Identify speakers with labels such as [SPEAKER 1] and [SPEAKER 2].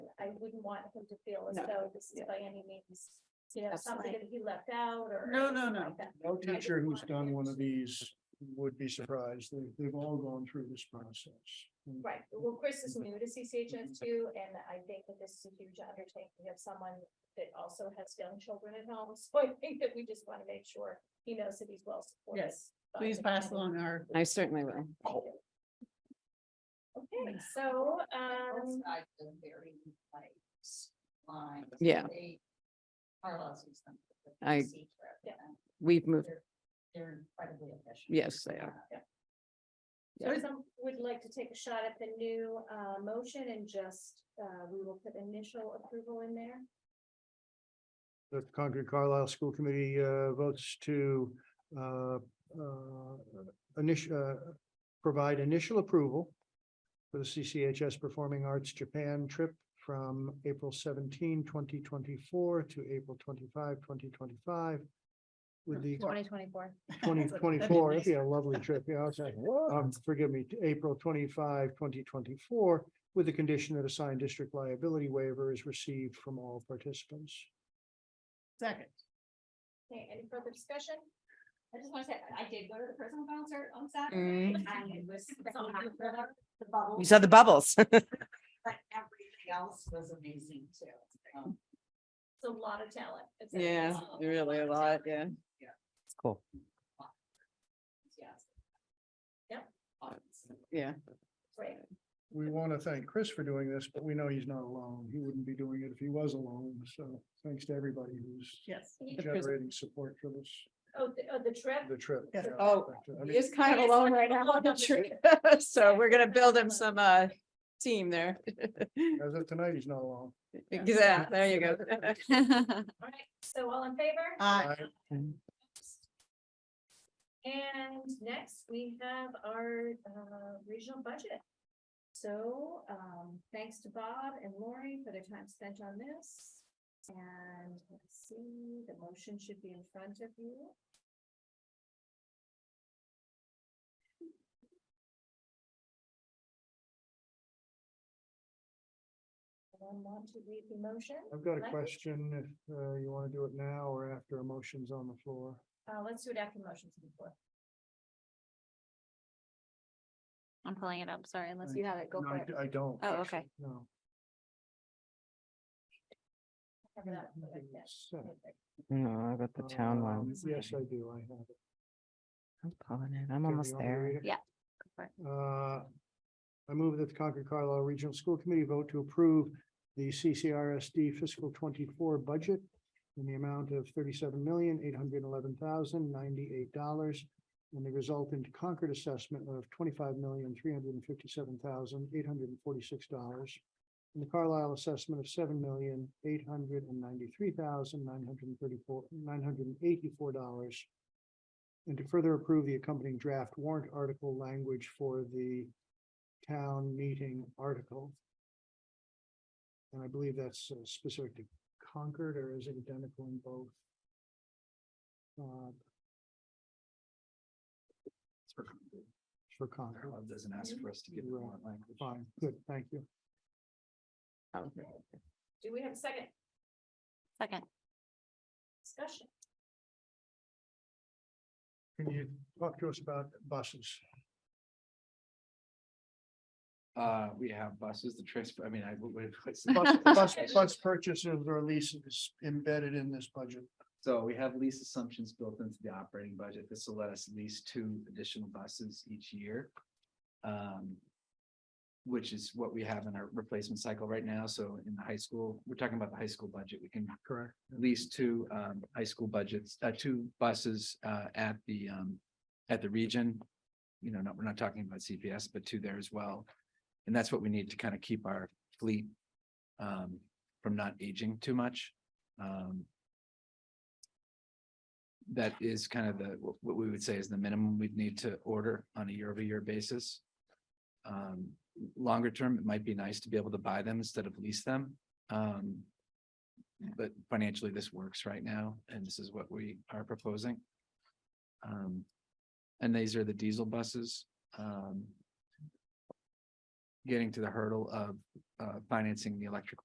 [SPEAKER 1] wouldn't want him to feel as
[SPEAKER 2] No,
[SPEAKER 1] though this is
[SPEAKER 2] yeah.
[SPEAKER 1] by any means, you know, something
[SPEAKER 2] Absolutely.
[SPEAKER 1] that he left out or.
[SPEAKER 2] No, no,
[SPEAKER 1] anything
[SPEAKER 2] no.
[SPEAKER 1] like that.
[SPEAKER 3] No
[SPEAKER 1] just
[SPEAKER 3] teacher who's
[SPEAKER 1] wanted
[SPEAKER 3] done
[SPEAKER 1] to-
[SPEAKER 3] one of these would be surprised. They, they've all gone through this process. And
[SPEAKER 1] Right, well, Chris is new
[SPEAKER 2] Mm-hmm.
[SPEAKER 1] to CCHS too, and I think that this is a huge undertaking. We have someone that also has young children at home, so I think that we just want to make sure he knows that he's well supported.
[SPEAKER 2] Yes,
[SPEAKER 1] by
[SPEAKER 2] Please
[SPEAKER 1] the
[SPEAKER 2] pass
[SPEAKER 1] community.
[SPEAKER 2] along our.
[SPEAKER 4] I certainly will.
[SPEAKER 1] Okay, so, um,
[SPEAKER 5] outside the very like s- lines.
[SPEAKER 4] Yeah.
[SPEAKER 5] They are losing some. of the
[SPEAKER 4] I-
[SPEAKER 5] PC trip,
[SPEAKER 1] Yeah.
[SPEAKER 5] and
[SPEAKER 4] We've moved,
[SPEAKER 5] They're they're incredibly efficient.
[SPEAKER 4] yes, they are.
[SPEAKER 1] so some would like to take a shot at the new, uh, motion and just, uh, we will put initial approval in there.
[SPEAKER 3] The Concord Carlisle School Committee, uh, votes to, uh, uh, initial, uh, provide initial approval for the CCHS Performing Arts Japan trip from April 17, 2024, to April 25, 2025, With the
[SPEAKER 1] Twenty twenty-four.
[SPEAKER 3] twenty
[SPEAKER 2] That'd be
[SPEAKER 3] twenty-four,
[SPEAKER 2] nice.
[SPEAKER 3] that'd be a lovely trip, yeah, it's like, um, forgive me, April 25, 2024, With the condition that a signed district liability waiver is received from all participants.
[SPEAKER 2] Second.
[SPEAKER 1] Okay, any further discussion?
[SPEAKER 5] I just want to say, I did go to the prison concert on Saturday and it was. The bubble.
[SPEAKER 4] Mm. You saw the bubbles.
[SPEAKER 5] But everything else was amazing too. Um,
[SPEAKER 1] It's a lot of talent. It's a-
[SPEAKER 4] Yeah, really a lot, yeah. Cool.
[SPEAKER 5] Yes.
[SPEAKER 1] Yep.
[SPEAKER 5] Awesome.
[SPEAKER 4] Yeah.
[SPEAKER 1] Great.
[SPEAKER 3] We want to thank Chris for doing this, but we know he's not alone. He wouldn't be doing it if he was alone, so thanks to everybody who's
[SPEAKER 2] Yes.
[SPEAKER 1] He-
[SPEAKER 4] prison.
[SPEAKER 3] generating support for this,
[SPEAKER 1] Oh, the, oh, the trip?
[SPEAKER 3] the trip.
[SPEAKER 2] Yes.
[SPEAKER 3] Yeah. uh,
[SPEAKER 4] Oh,
[SPEAKER 3] I mean,
[SPEAKER 4] He's kind of alone right now. on the trip. So we're gonna build him some uh team there.
[SPEAKER 3] As of tonight, he's not alone.
[SPEAKER 4] Yeah, there you go.
[SPEAKER 1] All right, so all in favor?
[SPEAKER 2] Aye.
[SPEAKER 3] I-
[SPEAKER 1] And next, we have our uh, regional budget. So um, thanks to Bob and Lori for their time spent on this. And let's see, the motion should be in front of you. Anyone want to read the motion?
[SPEAKER 3] I've got a
[SPEAKER 1] Right.
[SPEAKER 3] question, if uh, you want to do it now or after a motion's on the floor.
[SPEAKER 1] Uh, Let's do it after motions before.
[SPEAKER 6] I'm pulling it up, sorry, unless
[SPEAKER 3] Right.
[SPEAKER 6] you have it, go
[SPEAKER 3] No,
[SPEAKER 6] for
[SPEAKER 3] I
[SPEAKER 6] it.
[SPEAKER 3] d- I don't.
[SPEAKER 6] Oh,
[SPEAKER 3] actually,
[SPEAKER 6] okay.
[SPEAKER 3] No.
[SPEAKER 1] Cover that up like that.
[SPEAKER 3] Seven.
[SPEAKER 4] No, I got the town
[SPEAKER 3] Um,
[SPEAKER 4] one.
[SPEAKER 3] Yes, I do, I have it.
[SPEAKER 4] I'm pulling it. I'm
[SPEAKER 3] Okay,
[SPEAKER 4] almost
[SPEAKER 3] you want me to
[SPEAKER 4] there.
[SPEAKER 3] read it?
[SPEAKER 6] Yeah, go
[SPEAKER 3] Uh, I move that the Concord Carlisle Regional School Committee vote to approve the CCRSD fiscal twenty-four budget in the amount of thirty-seven million, eight hundred eleven thousand, ninety-eight dollars and the resultant Concord assessment of twenty-five million, three hundred and fifty-seven thousand, eight hundred and forty-six dollars and the Carlisle assessment of seven million, eight hundred and ninety-three thousand, nine hundred and thirty-four, nine hundred and eighty-four dollars and to further approve the accompanying draft warrant article language for the town meeting article. And I believe that's uh, specific to Concord or is it identical in both? Uh, for Concord,
[SPEAKER 7] Doesn't ask for us to give
[SPEAKER 3] give the
[SPEAKER 7] the
[SPEAKER 3] Right. warrant
[SPEAKER 7] language.
[SPEAKER 3] fine, good, thank you.
[SPEAKER 1] Do we have a second
[SPEAKER 6] Second,
[SPEAKER 1] discussion?
[SPEAKER 3] Can you talk to us about buses?
[SPEAKER 7] Uh, we have buses, the transfer, I mean, I, what- what- what's-
[SPEAKER 3] Bus, bus, bus purchases or leases embedded in this budget,
[SPEAKER 7] so we have lease assumptions built into the operating budget. This will let us lease two additional buses each year. Um, which is what we have in our replacement cycle right now. So in the high school, we're talking about the high school budget. We can
[SPEAKER 3] correct?
[SPEAKER 7] lease two um high school budgets, uh two buses uh at the um at the region. You know, not, we're not talking about CPS, but two there as well. And that's what we need to kind of keep our fleet um from not aging too much. Um. That is kind of the, wh- what we would say is the minimum we'd need to order on a year-over-year basis. Um, longer term, it might be nice to be able to buy them instead of lease them. Um, but financially, this works right now, and this is what we are proposing. Um, and these are the diesel buses, um. Getting to the hurdle of, uh, financing the electric